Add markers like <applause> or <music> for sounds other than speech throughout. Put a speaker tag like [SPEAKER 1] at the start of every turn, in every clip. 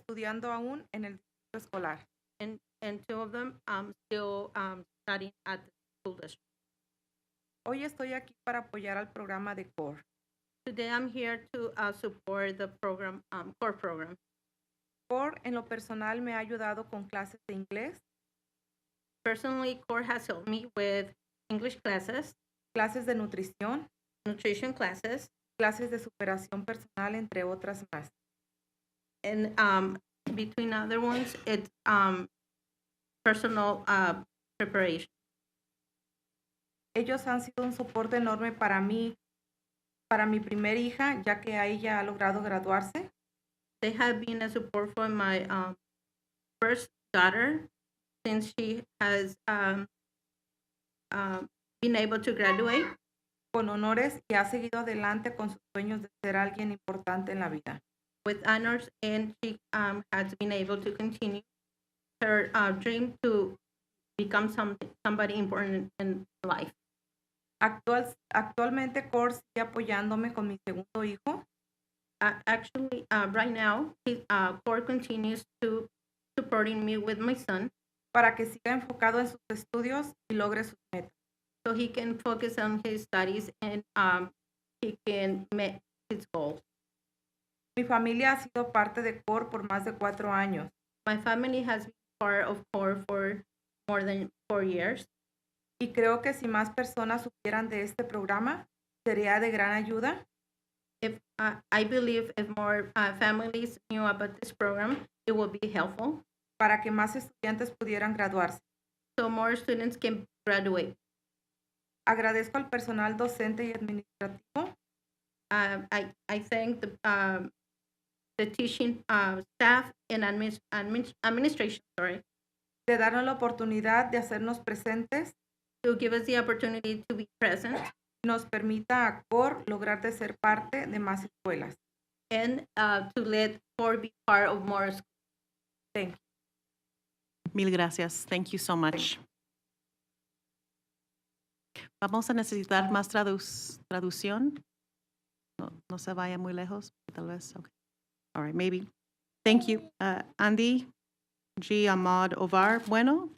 [SPEAKER 1] estudiando aún en el distrito escolar.
[SPEAKER 2] and, and two of them um, still um, studying at the school district.
[SPEAKER 1] Hoy estoy aquí para apoyar al programa de CORE.
[SPEAKER 2] Today, I'm here to uh, support the program, um, core program.
[SPEAKER 1] CORE en lo personal me ha ayudado con clases de inglés,
[SPEAKER 2] Personally, core has helped me with English classes,
[SPEAKER 1] clases de nutrición,
[SPEAKER 2] nutrition classes,
[SPEAKER 1] clases de superación personal, entre otras más.
[SPEAKER 2] and um, between other ones, it's um, personal uh, preparation.
[SPEAKER 1] Ellos han sido un soporte enorme para mí, para mi primer hija, ya que a ella ha logrado graduarse.
[SPEAKER 2] They have been a support for my um, first daughter since she has um, um, been able to graduate.
[SPEAKER 1] con honores y ha seguido adelante con sus sueños de ser alguien importante en la vida.
[SPEAKER 2] with honors and she um, has been able to continue her uh, dream to become some, somebody important in life.
[SPEAKER 1] Actual, actualmente Core sigue apoyándome con mi segundo hijo,
[SPEAKER 2] Uh, actually, uh, right now, he, uh, Core continues to supporting me with my son
[SPEAKER 1] para que siga enfocado en sus estudios y logre sus metas.
[SPEAKER 2] so he can focus on his studies and um, he can meet his goals.
[SPEAKER 1] Mi familia ha sido parte de Core por más de cuatro años.
[SPEAKER 2] My family has been part of Core for more than four years.
[SPEAKER 1] Y creo que si más personas supieran de este programa, sería de gran ayuda
[SPEAKER 2] If uh, I believe if more uh, families knew about this program, it would be helpful.
[SPEAKER 1] para que más estudiantes pudieran graduarse.
[SPEAKER 2] so more students can graduate.
[SPEAKER 1] Agradezco al personal docente y administrativo
[SPEAKER 2] Um, I, I thank the, um, the teaching uh, staff and admin, admin, administration, sorry,
[SPEAKER 1] de darnos la oportunidad de hacernos presentes
[SPEAKER 2] to give us the opportunity to be present
[SPEAKER 1] nos permita a CORE lograr de ser parte de más escuelas.
[SPEAKER 2] and uh, to let Core be part of more schools.
[SPEAKER 1] Thank you.
[SPEAKER 3] Mil gracias. Thank you so much. Vamos a necesitar más tradu- traducción. No, no se vaya muy lejos, tal vez. Okay. All right, maybe. Thank you. Uh, Andy G. Ahmad Ovar. Bueno.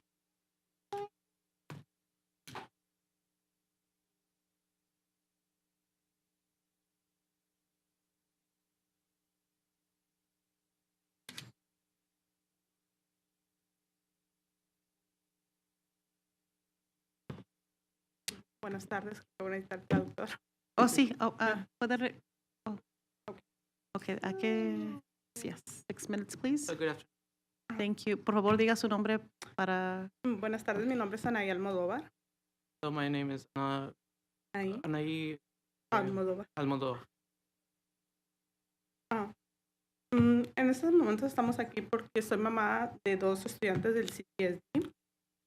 [SPEAKER 4] Buenas tardes, voy a necesitar traductor. <laughs>
[SPEAKER 3] Oh, sí. Oh, uh, puede re- oh. Okay, ¿a qué? Yes. Six minutes, please.
[SPEAKER 5] So good afternoon.
[SPEAKER 3] Thank you. Por favor, diga su nombre para.
[SPEAKER 4] Mm, Buenas tardes, mi nombre es Anaí Almodóvar.
[SPEAKER 5] So my name is Ana,
[SPEAKER 4] Anaí
[SPEAKER 5] Anaí
[SPEAKER 4] Almodóvar.
[SPEAKER 5] Almodovar.
[SPEAKER 4] Mm, En estos momentos estamos aquí porque soy mamá de dos estudiantes del CTSD.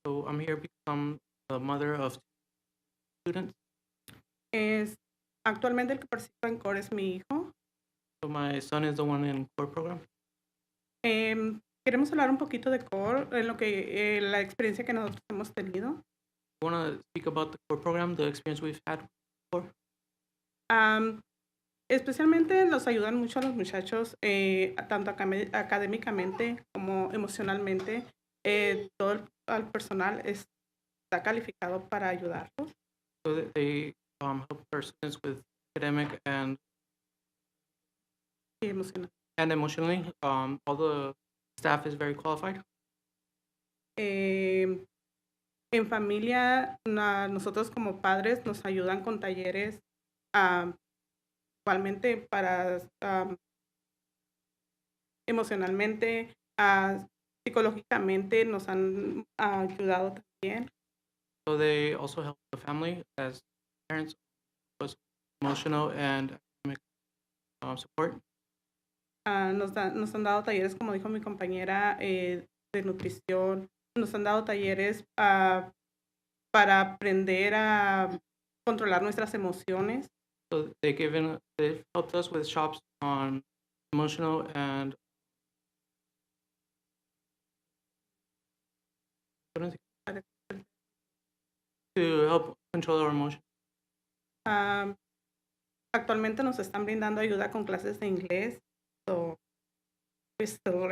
[SPEAKER 5] So I'm here because I'm the mother of students.
[SPEAKER 4] Es, actualmente el que participa en CORE es mi hijo.
[SPEAKER 5] So my son is the one in core program.
[SPEAKER 4] Em, queremos hablar un poquito de CORE, en lo que, eh, la experiencia que nosotros hemos tenido.
[SPEAKER 5] I want to speak about the core program, the experience we've had.
[SPEAKER 4] Am, especialmente los ayudan mucho a los muchachos, eh, a- tanto acame- académicamente como emocionalmente. Eh, todo el al personal es- está calificado para ayudarlos.
[SPEAKER 5] So that they um, help our students with academic and,
[SPEAKER 4] y emocional.
[SPEAKER 5] and emotionally. Um, all the staff is very qualified.
[SPEAKER 4] Eh, en familia, na- nosotros como padres nos ayudan con talleres, ah, igualmente para ah, emocionalmente, ah, psicológicamente nos han ayudado también.
[SPEAKER 5] So they also help the family as parents with emotional and academic um, support.
[SPEAKER 4] Ah, nos, da- nos han dado talleres, como dijo mi compañera, eh, de nutrición. Nos han dado talleres ah, para aprender a controlar nuestras emociones.
[SPEAKER 5] So they given they've helped us with shops on emotional and What is it? to help control our emotion.
[SPEAKER 4] Ah, actualmente nos están brindando ayuda con clases de inglés. So, we're still